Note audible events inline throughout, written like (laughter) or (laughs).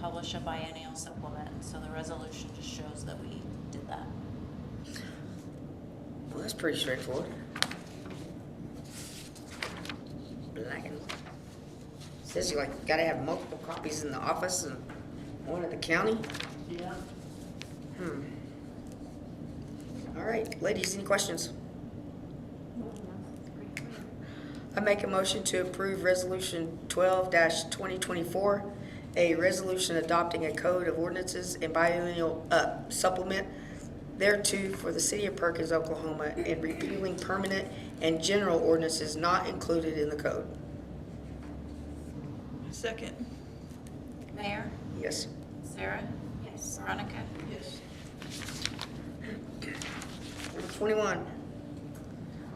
publish a biennial supplement, so the resolution just shows that we did that. Well, that's pretty straightforward. Black and, says you like, you gotta have multiple copies in the office and one at the county? Yeah. Hmm. All right, ladies, any questions? I make a motion to approve Resolution twelve twenty twenty-four, a resolution adopting a code of ordinances and biennial uh, supplement thereto for the city of Perkins, Oklahoma, and repealing permanent and general ordinances not included in the code. Second. Mayor? Yes. Sarah? Yes. Veronica? Yes. Number twenty-one,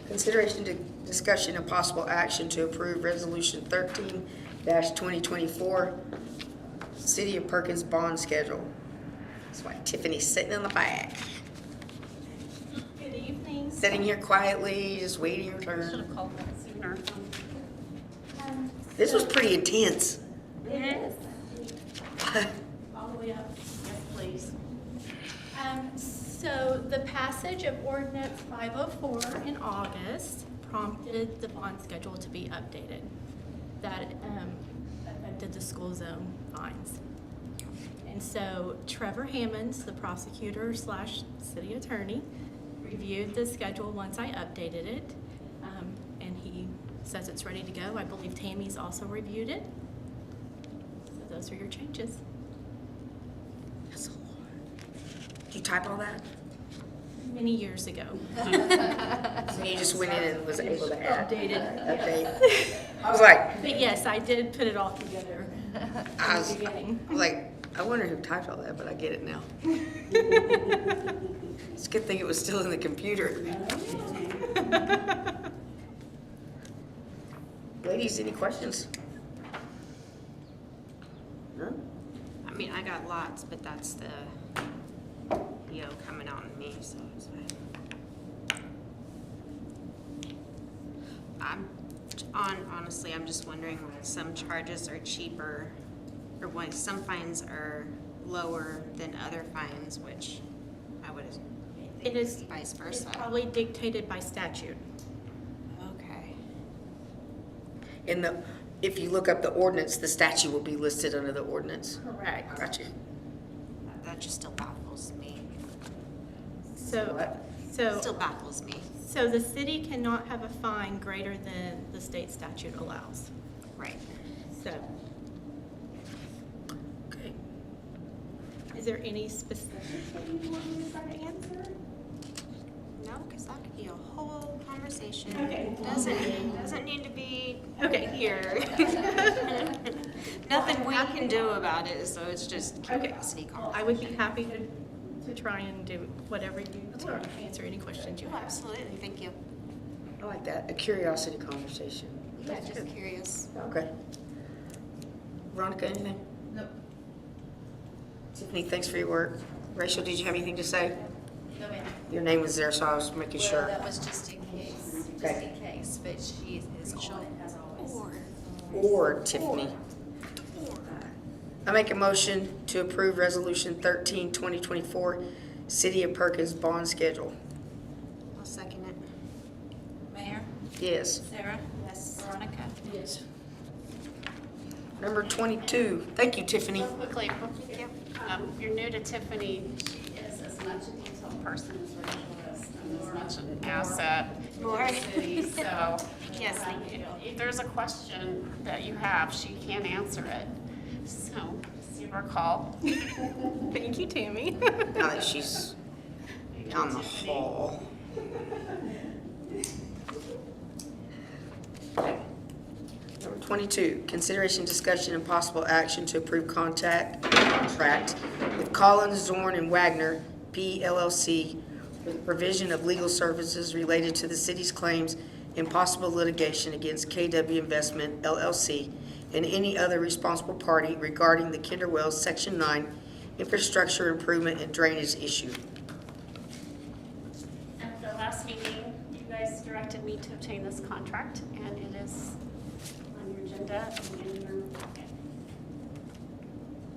consideration to discussion and possible action to approve Resolution thirteen twenty twenty-four, City of Perkins bond schedule. That's why Tiffany's sitting in the back, Good evening. sitting here quietly, just waiting her Should turn. have called that sooner. Um, This was pretty intense. It is. (laughs) All the way up. Yes, please. Um, so the passage of ordinance five oh four in August prompted the bond schedule to be updated. That, um, affected the school zone fines. And so Trevor Hammonds, the prosecutor slash city attorney, reviewed the schedule once I updated it. Um, and he says it's ready to go. I believe Tammy's also reviewed it. So those are your changes. That's a lot. Did you type all that? Many years ago. So you just went in and was able to add, Updated. update? I was like, But yes, I did put it all together I from the was, beginning. I was like, I wonder who typed all that, but I get it (laughs) now. It's a good thing it was still in the (laughs) computer. Ladies, any questions? None? I mean, I got lots, but that's the yo coming out in me, so it's fine. I'm on honestly. I'm just wondering why some charges are cheaper, or why some fines are lower than other fines, which I would. It think is- vice It's versa. probably dictated by statute. okay. In the, if you look up the ordinance, the statute will be listed under the ordinance. Correct. Got you. That, that just still baffles me. So, What? so. still baffles me. So the city cannot have a fine greater than the state statute allows. Right. So Okay. is there any specific thing you want me to try to answer? No, because that could be a whole conversation. Okay. Doesn't, doesn't need to be Okay. here. (laughs) Nothing we can do about it, so it's just curiosity call. I would be happy to, to try and do whatever you, to answer any questions you Oh, have. Absolutely, thank you. I like that, a curiosity conversation. Yeah, just curious. Okay. Veronica, anything? No, Tiffany, thanks for your work. Rachel, did you have anything to say? No, ma'am. Your name was there, so I was making Well, sure. that was just in case, just Okay. in case, but she is on it as always. Or Tiffany. I make a motion to approve Resolution 13, 2024, City of Perkins Bond Schedule. I'll second it. Mayor? Yes. Sarah? Yes. Veronica? Number 22, thank you, Tiffany. (laughs) Real quickly, um, you're new to Tiffany. She is as much a detail person as Rachel is, and as much an asset to (laughs) More. the city, so. Yes. um, you know, If there's a question that you have, she can answer it. So, give her a call. Thank you, Tammy. Now that she's down the hall. Number 22, consideration, discussion, and possible action to approve contact, contract with Collins, Zorn, and Wagner, P LLC, for the provision of legal services related to the city's claims and possible litigation against KW Investment LLC and any other responsible party regarding the Kinder Wells Section 9 infrastructure improvement and drainage issue. At the last meeting, you guys directed me to obtain this contract, and it is on your agenda and in your packet.